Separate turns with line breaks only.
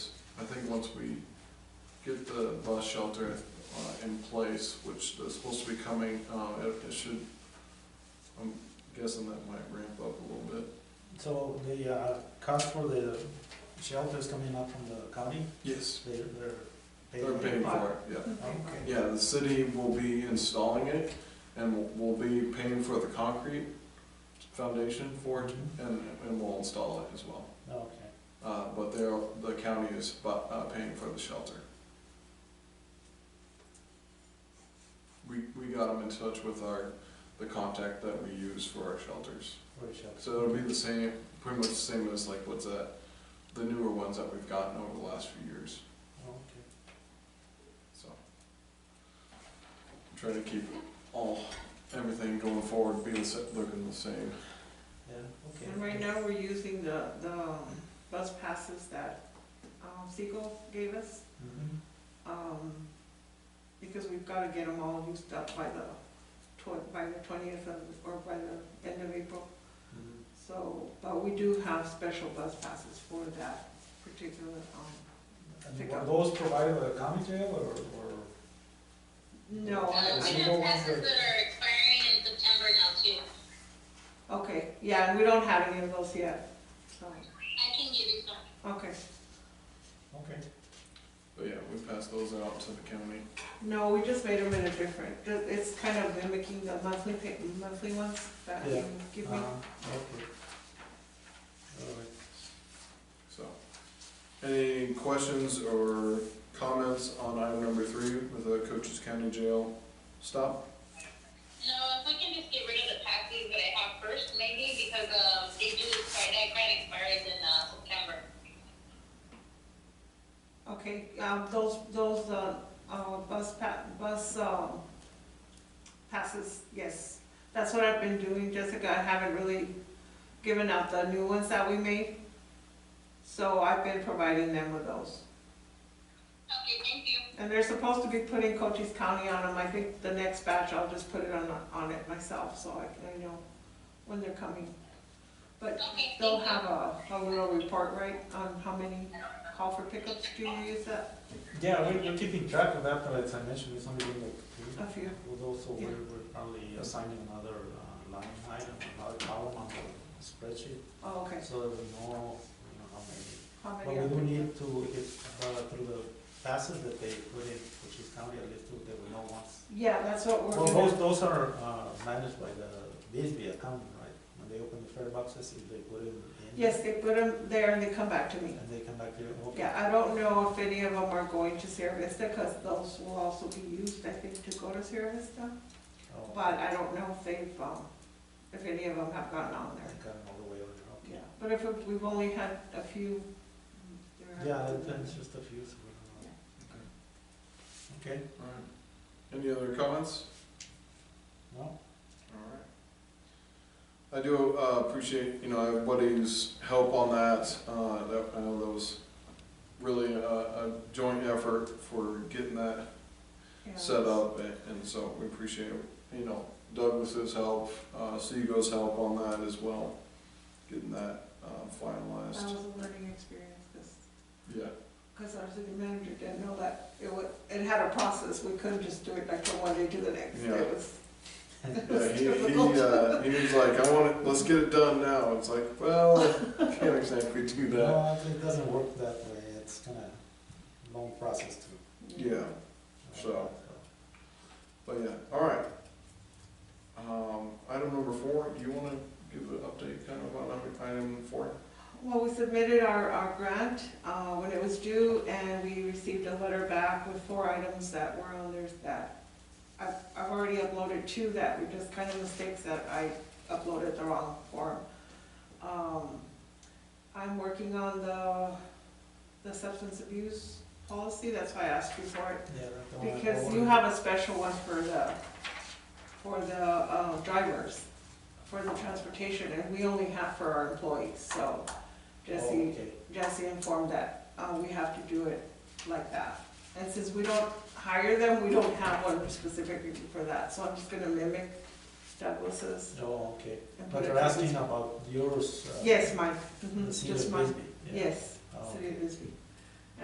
think once we get the bus shelter uh, in place, which is supposed to be coming, uh, it it should, I'm guessing that might ramp up a little bit.
So the uh, cost for the shelters coming up from the county,
Yes.
they're, they're. paid
They're
by-
paying for it, yeah.
Okay.
Yeah, the city will be installing it and we'll- we'll be paying for the concrete foundation for it and, and we'll install it as well.
Okay,
Uh, but they're, the county is bu- uh, paying for the shelter. We, we got them in touch with our, the contact that we use for our shelters.
for the shelter.
So it'll be the same, pretty much the same as like what's that, the newer ones that we've gotten over the last few years,
Okay.
so. I'm Trying to keep all, everything going forward, be the, sa- looking the same.
Yeah, okay.
And right now, we're using the, the um, bus passes that um, Segal gave us,
Mhm.
um, because we've gotta get them all used up by the tw- by the twentieth of, or by the end of April.
Mhm.
So, but we do have special bus passes for that particular, um,
And
Pick
were
up.
Mm-hmm. those provided by the county jail or, or?
no, I,
Is
I
it
We
go on
have passes
for-
that are expiring in September now too.
Okay, yeah, and we don't have any of those yet, so,
I can give you some.
okay.
Okay.
But yeah, we pass those out to the county.
No, we just made them in a different, th- it's kind of mimicking the monthly pay, monthly ones that
Yeah.
you give me.
Uh, Okay. All right.
So, any questions or comments on item number three with the Cochise County Jail stop?
No, if we can just get rid of the passes that I have first maybe because, um, they do expire, that grant expires in, uh, September.
Okay, um, those, those, uh, uh, bus pa, bus, um, passes, yes. That's what I've been doing, Jessica, I haven't really given out the new ones that we made. So I've been providing them with those.
Okay, thank you.
And they're supposed to be putting Cochise County on them, I think the next batch, I'll just put it on, on it myself, so I can, I know when they're coming. But
Okay,
they'll
thank you.
have a, a little report, right, on how many call for pickups, do you use that,
Yeah, we- we're keeping track of that, but as I mentioned, it's only been like three.
a few?
We'll also,
Yeah.
we're we're probably assigning another uh, line item, another column on the spreadsheet,
Oh, okay,
so that we know, you know, how many
how
But
many?
we
are-
do need to, if, uh, through the passes that they put in, which is county, at least two, that we know once.
Yeah, that's what
Well,
we're
those,
gonna,
those are, uh, managed by the BSB account, right? When they open the fare boxes, if they put it in.
yes, they put them there and they come back to me.
And they come back here, oh, okay.
Yeah, I don't know if any of them are going to Sierra Vista, cause those will also be used, I think, to go to Sierra Vista.
Oh,
But I don't know if they've, um, if any of them have gotten
I
on there.
got them all the way over, okay.
Yeah, but if it- we've only had a few. mm, there have
Yeah,
been-
that- that's just a few, so we don't know. Okay,
Alright. Any other comments?
no?
Alright. I do uh, appreciate, you know, everybody's help on that. Uh, that, I know that was really a, a joint effort for getting that
yeah.
set up, and and so we appreciate, you know, Douglas's help, uh, Seago's help on that as well, getting that uh,
That
finalized.
was a learning experience, cause,
Yeah,
'cause our city manager didn't know that, it wa it had a process, we couldn't just do it like from one day to the next,
Yeah.
it was. it was
yeah, he,
difficult.
he, uh, he was like, I want it, let's get it done now, it's like, well, can't exactly do that.
No, it doesn't work that way, it's kinda long process to. uh,
Yeah, So. but yeah, all right. Um, item number four, do you wanna give an update kind of on item four?
Well, we submitted our, our grant, uh, when it was due, and we received a letter back with four items that were on there that I've, I've already uploaded two that were just kind of mistakes that I uploaded the wrong form. Um, I'm working on the, the substance abuse policy, that's why I asked you for it.
Yeah, that's the one I
Because you
forwarded.
have a special one for the, for the uh, drivers, for the transportation, and we only have for our employees, so Jesse,
Okay.
Jesse informed that, uh, we have to do it like that. And since we don't hire them, we don't have one specifically for that, so I'm just gonna mimic Douglas's.
Oh, okay,
and
but
put it-
you're asking about yours. uh,
Yes, mine,
the
Mhm,
senior
just mine,
Bisbee, yeah.
yes,
Oh,
City of Bisbee.